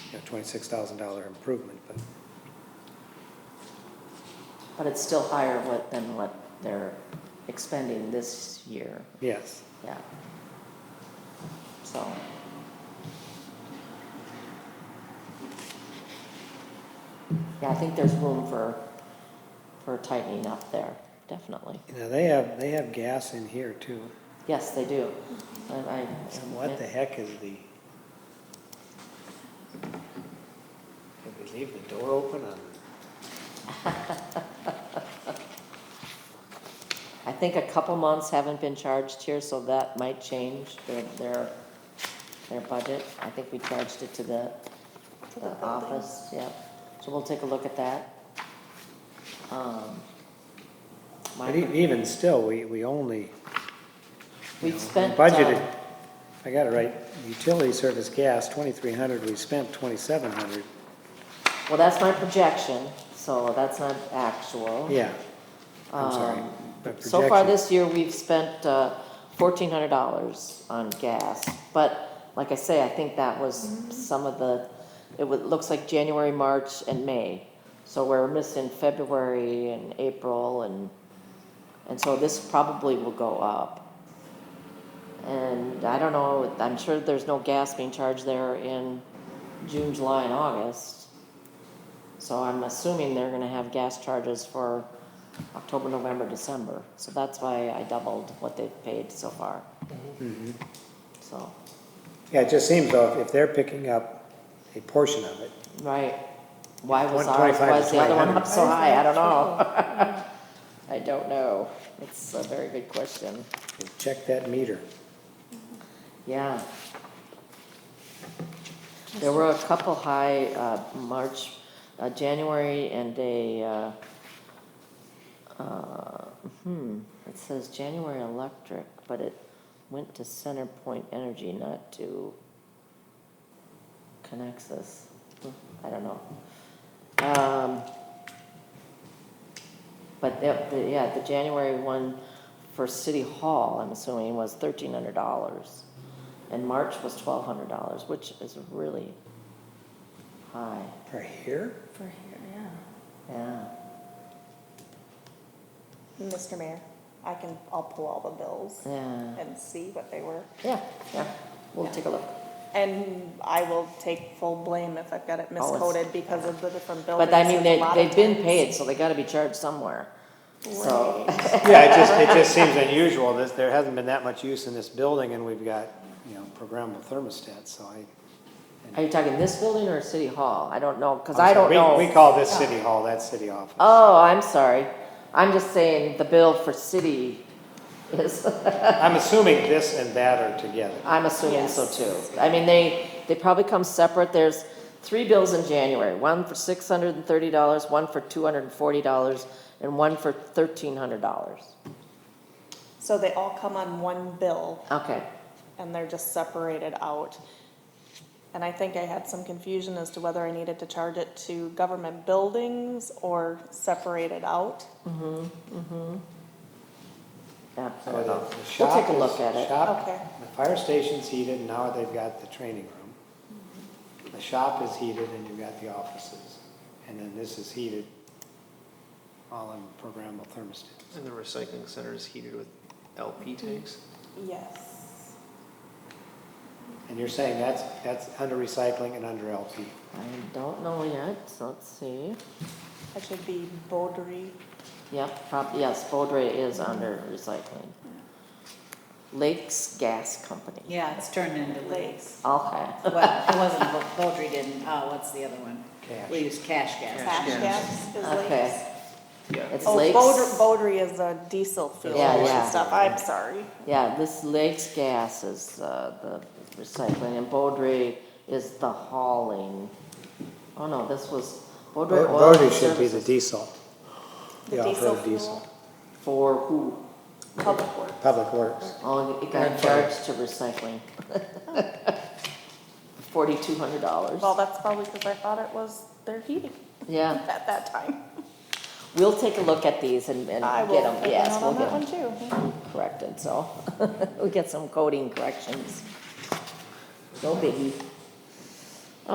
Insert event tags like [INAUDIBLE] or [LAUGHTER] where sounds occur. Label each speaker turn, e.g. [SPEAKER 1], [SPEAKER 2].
[SPEAKER 1] you know, twenty-six thousand dollar improvement, but
[SPEAKER 2] But it's still higher what, than what they're expending this year,
[SPEAKER 1] yes.
[SPEAKER 2] yeah. So, yeah, I think there's room for, for tightening up there, definitely.
[SPEAKER 1] Now, they have, they have gas in here too.
[SPEAKER 2] Yes, they do. I, I.
[SPEAKER 1] So what the heck is the? Did we leave the door open on?
[SPEAKER 2] I think a couple months haven't been charged here, so that might change their, their, their budget. I think we charged it to the, the office, yeah. So we'll take a look at that. Um,
[SPEAKER 1] But e- even still, we, we only. you
[SPEAKER 2] We've
[SPEAKER 1] know,
[SPEAKER 2] spent,
[SPEAKER 1] Budgeted,
[SPEAKER 2] um,
[SPEAKER 1] I got it right, utility service gas, twenty-three hundred, we spent twenty-seven hundred,
[SPEAKER 2] Well, that's my projection, so that's not actual.
[SPEAKER 1] yeah. I'm sorry.
[SPEAKER 2] Um,
[SPEAKER 1] but
[SPEAKER 2] So far
[SPEAKER 1] projection-
[SPEAKER 2] this year, we've spent uh, fourteen hundred dollars on gas, but like I say, I think that was some of the, it wa- looks like January, March, and May. So we're missing February and April, and, and so this probably will go up. And I don't know, I'm sure there's no gas being charged there in June, July, and August. So I'm assuming they're gonna have gas charges for October, November, December. So that's why I doubled what they've paid so far. Mm-hmm. So,
[SPEAKER 1] Yeah, it just seems though, if if they're picking up a portion of it,
[SPEAKER 2] right, why was ours,
[SPEAKER 1] 125
[SPEAKER 2] why is the other one
[SPEAKER 1] 2,800?
[SPEAKER 2] up so high? I don't know. [LAUGHS] I don't know. It's a very good question.
[SPEAKER 1] and check that meter.
[SPEAKER 2] Yeah. There were a couple high, uh, March, uh, January and a, uh, uh, hmm, it says January electric, but it went to Center Point Energy, not to Conexus. Hmm, I don't know. Um, but the, the- yeah, the January one for City Hall, I'm assuming, was thirteen hundred dollars. And March was twelve hundred dollars, which is really high,
[SPEAKER 1] Right here?
[SPEAKER 3] For here, yeah.
[SPEAKER 2] yeah.
[SPEAKER 3] Mr. Mayor, I can, I'll pull all the bills
[SPEAKER 2] Yeah,
[SPEAKER 3] and see what they were.
[SPEAKER 2] yeah, yeah, we'll take a look.
[SPEAKER 3] And I will take full blame if I've got it
[SPEAKER 2] Oh, it's-
[SPEAKER 3] miscoded because of the different buildings.
[SPEAKER 2] But I mean,
[SPEAKER 3] It's a
[SPEAKER 2] they,
[SPEAKER 3] lot of
[SPEAKER 2] they've been
[SPEAKER 3] times.
[SPEAKER 2] paid, so they gotta be charged somewhere, so.
[SPEAKER 1] Yeah, it just, it just seems unusual, that there hasn't been that much use in this building, and we've got, you know, programmable thermostats, so I.
[SPEAKER 2] Are you talking this building or City Hall? I don't know, cause
[SPEAKER 1] I'm
[SPEAKER 2] I don't
[SPEAKER 1] sorry,
[SPEAKER 2] know.
[SPEAKER 1] we- We call this city hall, that's city office.
[SPEAKER 2] Oh, I'm sorry, I'm just saying the bill for city is.
[SPEAKER 1] I'm assuming this and that are together.
[SPEAKER 2] I'm assuming so
[SPEAKER 3] Yes.
[SPEAKER 2] too. I mean, they, they probably come separate. There's three bills in January, one for six hundred and thirty dollars, one for two hundred and forty dollars, and one for thirteen hundred dollars.
[SPEAKER 3] So they all come on one bill
[SPEAKER 2] Okay,
[SPEAKER 3] and they're just separated out. And I think I had some confusion as to whether I needed to charge it to government buildings or separate it out.
[SPEAKER 2] yeah.
[SPEAKER 1] So the- the
[SPEAKER 2] We'll
[SPEAKER 1] shop
[SPEAKER 2] take a look
[SPEAKER 1] is-
[SPEAKER 2] at it.
[SPEAKER 1] Shop,
[SPEAKER 3] Okay.
[SPEAKER 1] the fire station's heated, and now they've got the training room. The shop is heated, and you've got the offices, and then this is heated, all in programmable thermostats.
[SPEAKER 4] And the recycling center is heated with LP tanks?
[SPEAKER 3] Yes.
[SPEAKER 1] And you're saying that's, that's under recycling and under LP.
[SPEAKER 2] I don't know yet, so let's see.
[SPEAKER 3] That should be Beaudry.
[SPEAKER 2] Yep, prob, yes, Bodray is under recycling. Lakes Gas Company.
[SPEAKER 5] Yeah, Oh, it's turned into
[SPEAKER 3] Lakes.
[SPEAKER 5] lakes.
[SPEAKER 2] Okay,
[SPEAKER 5] Well, it wasn't, Baldry didn't, oh, what's the other one?
[SPEAKER 1] Cash.
[SPEAKER 5] We use cash gas.
[SPEAKER 3] Cash gas is Lakes.
[SPEAKER 2] okay,
[SPEAKER 4] Yeah.
[SPEAKER 2] It's
[SPEAKER 3] Oh,
[SPEAKER 2] lakes.
[SPEAKER 3] Bodr, Bodry is a diesel fuel
[SPEAKER 2] Yeah,
[SPEAKER 3] and
[SPEAKER 2] yeah.
[SPEAKER 3] stuff, I'm sorry.
[SPEAKER 2] yeah, this Lakes Gas is, uh, the recycling, and Bodray is the hauling. Oh, no, this was, Bodray Oil
[SPEAKER 1] Voting
[SPEAKER 2] and
[SPEAKER 1] should be the
[SPEAKER 2] Services
[SPEAKER 1] diesel.
[SPEAKER 3] The
[SPEAKER 1] The
[SPEAKER 3] diesel
[SPEAKER 1] off-road diesel.
[SPEAKER 3] fuel,
[SPEAKER 2] for who?
[SPEAKER 3] public work.
[SPEAKER 1] Public Works.
[SPEAKER 2] Oh, it got charged to recycling. [LAUGHS] Forty-two hundred dollars.
[SPEAKER 3] Well, that's probably because I thought it was their heating
[SPEAKER 2] Yeah,
[SPEAKER 3] at that time.
[SPEAKER 2] we'll take a look at these and, and
[SPEAKER 3] I
[SPEAKER 2] get
[SPEAKER 3] will
[SPEAKER 2] them,
[SPEAKER 3] put
[SPEAKER 2] yes,
[SPEAKER 3] one
[SPEAKER 2] we'll
[SPEAKER 3] on
[SPEAKER 2] get
[SPEAKER 3] that
[SPEAKER 2] them
[SPEAKER 3] one too.
[SPEAKER 2] [LAUGHS] corrected, so. We'll get some coding corrections. No biggie.